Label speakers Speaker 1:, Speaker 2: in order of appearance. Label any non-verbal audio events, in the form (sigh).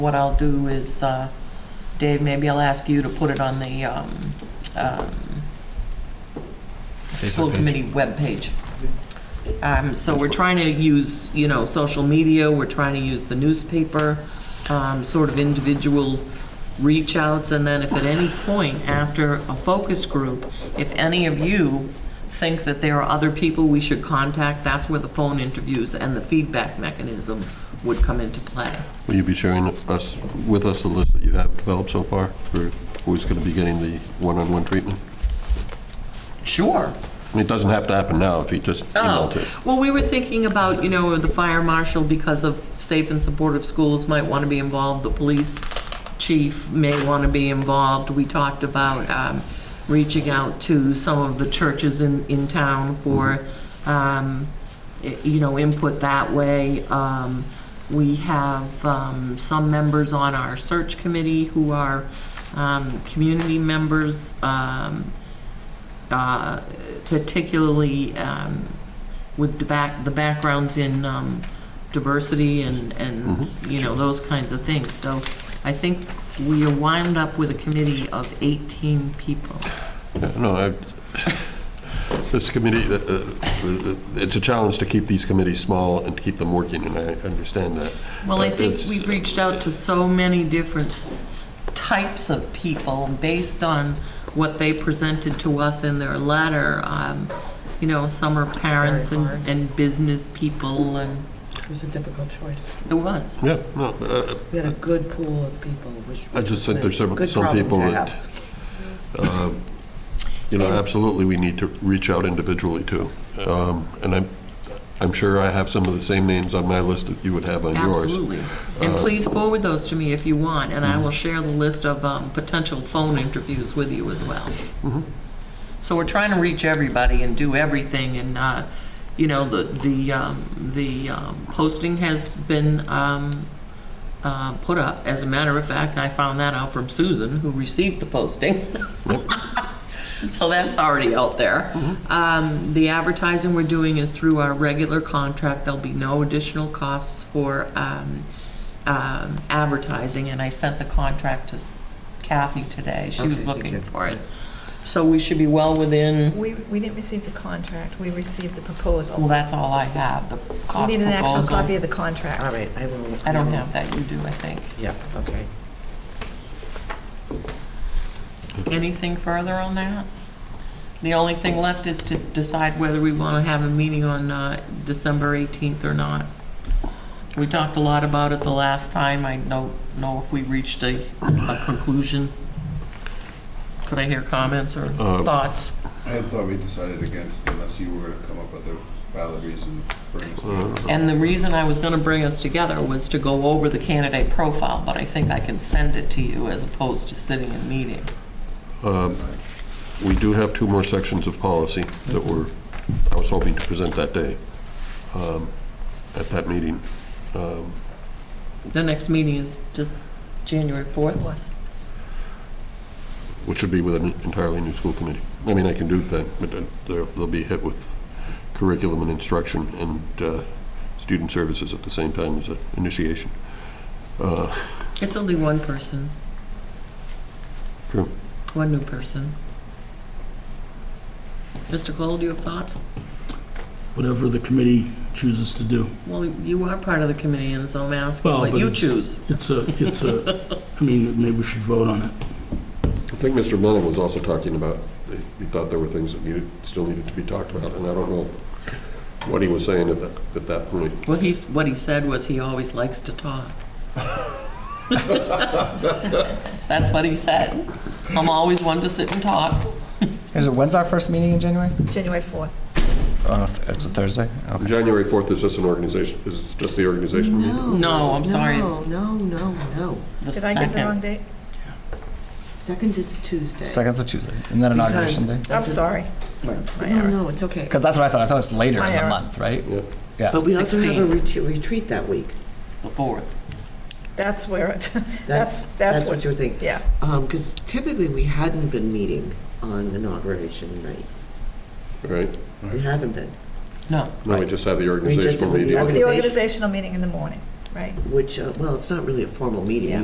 Speaker 1: What I'll do is, uh, Dave, maybe I'll ask you to put it on the um, um, school
Speaker 2: page.
Speaker 1: committee webpage. Um, So we're trying to use, you know, social media, we're trying to use the newspaper, um, sort of individual reach outs, and then if at any point after a focus group, if any of you think that there are other people we should contact, that's where the phone interviews and the feedback mechanism would come into play.
Speaker 3: Will you be sharing us, with us the list that you have developed so far for who's going to be getting the one-on-one treatment?
Speaker 1: Sure.
Speaker 3: I mean, It doesn't have to happen now if you just emailed it.
Speaker 1: Oh, well, we were thinking about, you know, the fire marshal, because of safe and supportive schools, might want to be involved, the police chief may want to be involved. We talked about um, reaching out to some of the churches in, in town for, um, i- you know, input that way. Um, We have um, some members on our search committee who are um, community members. um, uh, particularly um, with the back, the backgrounds in um, diversity and, and, you know, those kinds of things. So I think we are wound up with a committee of 18 people.
Speaker 3: Yeah, No, I, this committee, uh, uh, it's a challenge to keep these committees small and to keep them working, and I understand that.
Speaker 1: Well, I think
Speaker 3: It's-
Speaker 1: we've reached out to so many different types of people based on what they presented to us in their letter. Um, You know, some are parents and,
Speaker 4: hard.
Speaker 1: and business people, and
Speaker 4: It was a difficult choice.
Speaker 1: it was.
Speaker 3: Yeah, no, uh,
Speaker 4: We had a good pool of people, which.
Speaker 3: I just think there's some,
Speaker 4: Good
Speaker 3: some
Speaker 4: problem
Speaker 3: people
Speaker 4: to
Speaker 3: that, um, you know, absolutely, we need to reach out individually to. Um, And I'm, I'm sure I have some of the same names on my list that you would have on yours.
Speaker 1: Absolutely. And
Speaker 3: Uh, Mm-hmm.
Speaker 1: please forward those to me if you want, and I will share the list of um, potential phone interviews with you as well.
Speaker 3: Mm-hmm.
Speaker 1: So we're trying to reach everybody and do everything, and, uh, you know, the, the, um, the um, posting has been um, uh, put up. As a matter of fact, I found that out from Susan, who received the posting. So that's already out there.
Speaker 4: Mm-hmm.
Speaker 1: Um, The advertising we're doing is through our regular contract. There'll be no additional costs for um, um, advertising, and I sent the contract to Kathy today. She was
Speaker 4: Okay, thank
Speaker 1: looking
Speaker 4: you.
Speaker 1: for it. So we should be well within,
Speaker 5: We, we didn't receive the contract, we received the proposal.
Speaker 1: well, that's all I have, the
Speaker 5: We
Speaker 1: cost
Speaker 5: need an actual copy
Speaker 1: proposal.
Speaker 5: of the contract.
Speaker 4: All right, I will.
Speaker 1: I don't have that, you do, I think.
Speaker 4: Yeah, okay.
Speaker 1: Anything further on that? The only thing left is to decide whether we want to have a meeting on uh, December 18th or not. We talked a lot about it the last time. I don't know if we reached a a conclusion. Could I hear comments or
Speaker 3: Uh,
Speaker 1: thoughts?
Speaker 6: I had thought we decided against unless you were gonna come up with a valid reason for an
Speaker 3: Uh,
Speaker 6: excuse.
Speaker 1: And the reason I was going to bring us together was to go over the candidate profile, but I think I can send it to you as opposed to sitting in meeting.
Speaker 3: Um, We do have two more sections of policy that were, I was hoping to present that day um, at that meeting. Um,
Speaker 1: The next meeting is just January 4th.
Speaker 3: which would be with an entirely new school committee. I mean, I can do that, but then they'll they'll be hit with curriculum and instruction and uh, student services at the same time as an initiation. Uh,
Speaker 1: It's only one person.
Speaker 3: True.
Speaker 1: One new person. Mr. Cole, do you have thoughts?
Speaker 7: whatever the committee chooses to do.
Speaker 1: Well, you are part of the committee, and so I'm asking
Speaker 7: Well,
Speaker 1: what
Speaker 7: but
Speaker 1: you
Speaker 7: it's-
Speaker 1: choose.
Speaker 7: It's a, it's a, I mean, maybe we should vote on it.
Speaker 3: I think Mr. Lennon was also talking about, he thought there were things that needed, still needed to be talked about, and I don't know what he was saying at that, at that point.
Speaker 1: Well, he's, what he said was he always likes to talk. That's what he said. I'm always one to sit and talk.
Speaker 8: Is it, when's our first meeting in January?
Speaker 5: January 4th.
Speaker 8: On a, th- it's a Thursday? Okay.
Speaker 3: January 4th is just an organization, is just the organization meeting.
Speaker 1: No, I'm sorry.
Speaker 4: No, no, no, no.
Speaker 1: The
Speaker 5: Did I get the
Speaker 1: second.
Speaker 5: wrong date?
Speaker 4: Second is Tuesday.
Speaker 8: Second's a Tuesday. Isn't that inauguration day?
Speaker 4: Because-
Speaker 5: I'm sorry. My
Speaker 4: No,
Speaker 5: error.
Speaker 4: no, it's okay.
Speaker 8: Because that's what I thought. I thought it's later in
Speaker 5: My
Speaker 8: the
Speaker 5: error.
Speaker 8: month, right?
Speaker 3: Yeah.
Speaker 8: Yeah.
Speaker 4: But we also have a
Speaker 1: 16.
Speaker 4: retreat, retreat that week.
Speaker 1: The fourth.
Speaker 5: That's where it, (laughs) that's, that's
Speaker 4: That's
Speaker 5: what,
Speaker 4: what you're thinking.
Speaker 5: yeah.
Speaker 4: Um, because typically we hadn't been meeting on inauguration night.
Speaker 3: Right?
Speaker 4: We haven't been.
Speaker 1: No.
Speaker 3: No, we just have the
Speaker 4: We just
Speaker 3: organizational
Speaker 4: have the
Speaker 3: meeting.
Speaker 5: That's the
Speaker 4: Organization.
Speaker 5: organizational meeting in the morning. right?
Speaker 4: which, uh, well, it's not really a formal meeting.
Speaker 5: Yeah.